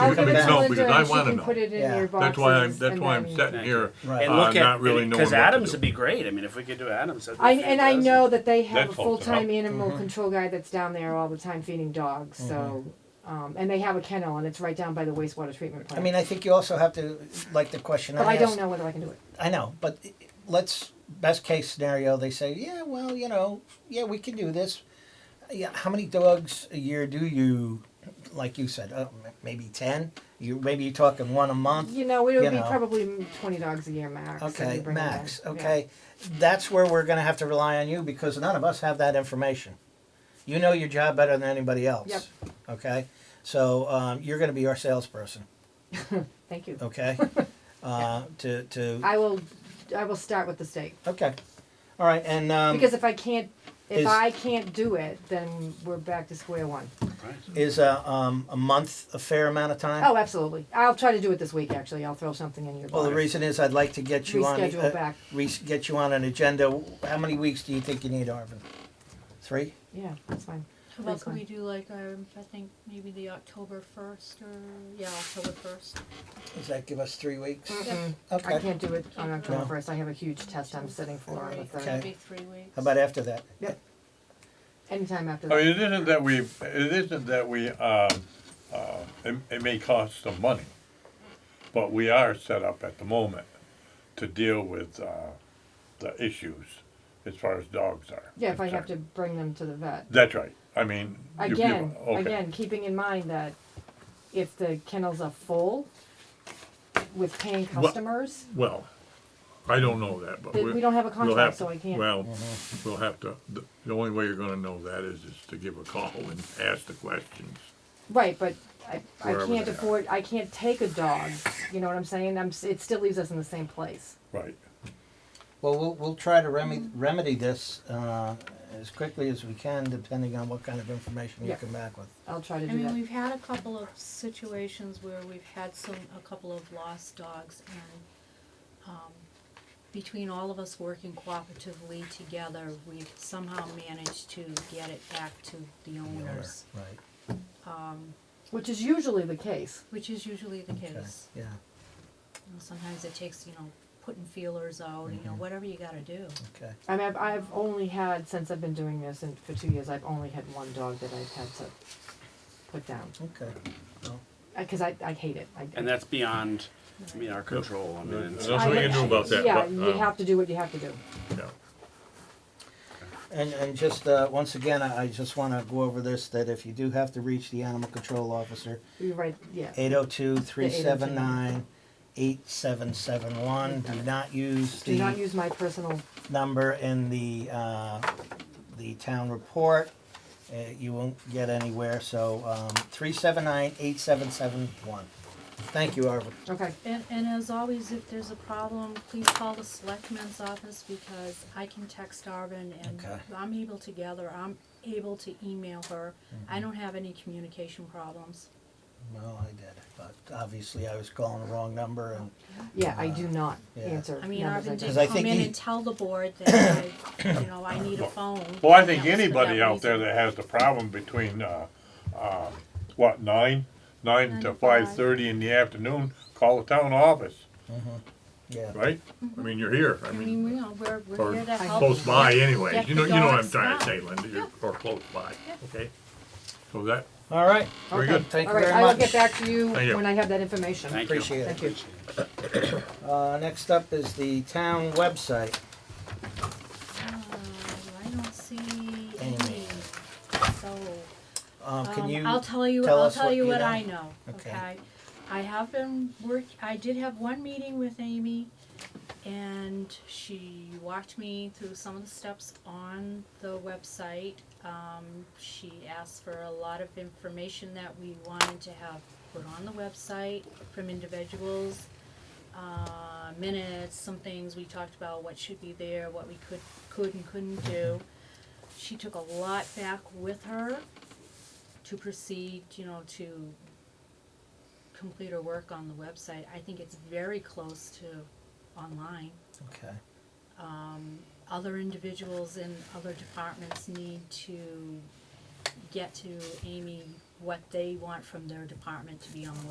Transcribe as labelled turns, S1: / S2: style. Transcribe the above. S1: I would
S2: You're
S1: give
S2: coming
S1: it
S2: back.
S1: to
S2: No,
S1: Linda
S3: because
S1: and
S3: I
S1: she
S3: wanna
S1: can
S3: know.
S1: put it in
S2: Yeah.
S1: your boxes.
S3: That's why I'm, that's
S1: and
S3: why I'm
S1: then-
S3: sitting here,
S2: Right.
S4: and
S3: uh,
S4: look
S3: not
S4: at
S3: really knowing what
S4: because
S3: to
S4: Adams
S3: do.
S4: would be great. I mean, if we could do Adams, that'd be
S1: I, and I
S4: fantastic.
S1: know that they
S5: That
S1: have a
S5: folks are up.
S1: full-time
S2: Mm-hmm.
S1: animal control guy that's down there all the time feeding dogs, so, um, and they have a kennel and it's right down by the wastewater treatment
S2: Mm-hmm. I
S1: plant.
S2: mean, I think you also have to, like the question
S1: But
S2: I
S1: I
S2: asked.
S1: don't know whether I can do it.
S2: I know, but let's best case scenario. They say, yeah, well, you know, yeah, we can do this. Yeah, how many dogs a year do you, like you said, uh, m- maybe ten? You maybe you're talking one a month.
S1: You know, it would
S2: You
S1: be
S2: know.
S1: probably twenty dogs a year max. if you
S2: Okay,
S1: bring it in.
S2: max.
S1: Yeah.
S2: Okay, that's where we're gonna have to rely on you because none of us have that information. You know your job better than anybody else.
S1: Yep.
S2: Okay, so um, you're gonna be our salesperson.
S1: Thank you.
S2: Okay, uh, to to.
S1: I will, I will start with the state,
S2: okay, all right, and um,
S1: because if I can't, if
S2: is-
S1: I can't do it, then we're back to square one.
S4: Right.
S2: Is a, um, a month a fair amount of time?
S1: Oh, absolutely. I'll try to do it this week, actually. I'll throw something in your
S2: Well, the
S1: box.
S2: reason is I'd like to get you uh, on.
S1: Reschedule back.
S2: Re- get you on an agenda. How many weeks do you think you need, Arvin? Three?
S1: Yeah, that's fine.
S6: How about
S1: Refund.
S6: we do like, um, I think maybe the October first or, yeah, October first.
S2: Does that give us three weeks?
S3: Mm,
S1: Mm-mm. Mm, I
S2: Okay. How
S1: can't do it on October
S2: No.
S1: first. I have a huge test I'm sitting for on the
S2: Okay.
S1: third.
S6: Be three weeks.
S2: about after that?
S1: Anytime after
S3: Oh,
S5: I
S1: that.
S5: mean, it isn't that we, it isn't that we, um, uh, it, it may cost some money, but we are set up at the moment to deal with, uh, the issues as far as dogs are.
S1: Yeah, if I have to
S5: concerned.
S1: bring them to the vet.
S5: That's right, I mean. you- you-
S1: Again,
S5: okay.
S1: again, keeping in mind that if the kennels are full with paying
S3: Well-
S1: customers,
S3: Well, I don't know that, but
S1: Th-
S3: we're.
S1: we don't have a
S3: we'll
S1: contract,
S3: have to-
S1: so I can't.
S3: Well, we'll have to, the, the only way you're gonna know that is, is to give a call and ask the questions.
S1: right, but I, I
S3: Wherever
S1: can't
S3: they are.
S1: afford, I can't take a dog, you know what I'm saying? I'm, s- it still leaves us in the same place.
S5: Right,
S2: Well, we'll, we'll try to remedy, remedy this uh, as quickly as we can, depending on what kind of information you
S1: Yeah.
S2: come back with.
S1: I'll try to
S6: I
S1: do
S6: mean,
S1: that.
S6: we've had a couple of situations where we've had some, a couple of lost dogs and, um, between all of us working cooperatively together, we've somehow managed to get it back to the
S2: the owner,
S6: owners,
S2: Right.
S1: Which is usually the case.
S6: which is usually the
S2: Okay.
S6: case.
S2: Yeah.
S6: You know, Sometimes it takes, you know, putting feelers out, you
S2: Mm-hmm.
S6: know, whatever you gotta do.
S2: Okay.
S1: I mean, I've, I've only had, since I've been doing this and for two years, I've only had one dog that I've had to put down.
S2: Okay.
S1: Because I, I hate it. I,
S4: And that's beyond, I mean, our control. I mean,
S3: And
S4: it's-
S3: that's what you can do about that,
S1: Yeah,
S3: but,
S1: you
S3: um,
S1: have to do what you have to do.
S3: yeah.
S2: And, and just, uh, once again, I I just wanna go over this, that if you do have to reach the animal control officer, oh
S1: You're right, yeah.
S2: 802-379-8771. Do not use
S1: Do not
S2: the
S1: use my personal,
S2: number in the, uh, the town report. Uh, You won't get anywhere, so um, 379-8771. Thank you, Arvin.
S1: okay,
S6: And, and as always, if there's a problem, please call the selectman's office because I can text Arvin and
S2: Okay.
S6: I'm able to gather, I'm able to email her.
S2: Mm-hmm.
S6: I don't have any communication problems.
S2: Well, I did, but obviously I was calling the wrong number and,
S1: yeah, I do not
S2: Yeah.
S1: answer
S6: I mean,
S1: numbers
S6: Arvin
S1: I
S2: Because
S6: did
S2: I
S1: don't.
S6: come
S2: think
S6: in
S2: he-
S6: and tell the board that I, you know, I need a phone.
S5: well, I
S6: and
S5: think
S6: that was for
S5: anybody
S6: that
S5: out there
S6: reason.
S5: that has the problem between, uh, uh, what, nine? Nine
S6: Nine
S5: to
S6: to five.
S5: five thirty in the afternoon, call the town office,
S2: yeah.
S3: Right? I mean, you're here, I
S6: I mean, Mm-hmm. we
S3: mean,
S6: know, we're, we're
S3: or
S6: here to help. Uh,
S3: close by anyway,
S6: Get
S3: you know,
S6: the
S3: you know what I'm
S6: dogs
S3: trying to
S6: out.
S3: say, Linda, you're, or close by,
S6: Yeah.
S3: okay? So that,
S2: All right,
S3: very
S1: Okay.
S3: good.
S2: thank you
S1: All right,
S2: very
S1: I will
S2: much.
S1: get back to you
S3: Thank you.
S1: when I have that information.
S4: Thank you.
S2: Appreciate it.
S1: Thank you.
S2: Uh, Next up is the town website.
S6: Um, I don't see
S2: Any.
S6: any, so.
S2: Um, Can
S6: Um,
S2: you?
S6: I'll tell you.
S2: tell
S6: I'll
S2: us
S6: tell
S2: what
S6: you
S2: you
S6: what
S2: know?
S6: I know.
S2: Okay.
S6: Okay. I have been work. I did have one meeting with Amy, and she walked me through some of the steps on the website. Um, she asked for a lot of information that we wanted to have put on the website from individuals. Uh, minutes, some things we talked about, what should be there, what we could could and couldn't do. She took a lot back with her to proceed, you know, to complete her work on the website. I think it's very close to online.
S2: Okay.
S6: Other individuals in other departments need to get to Amy what they want from their department to be on the website.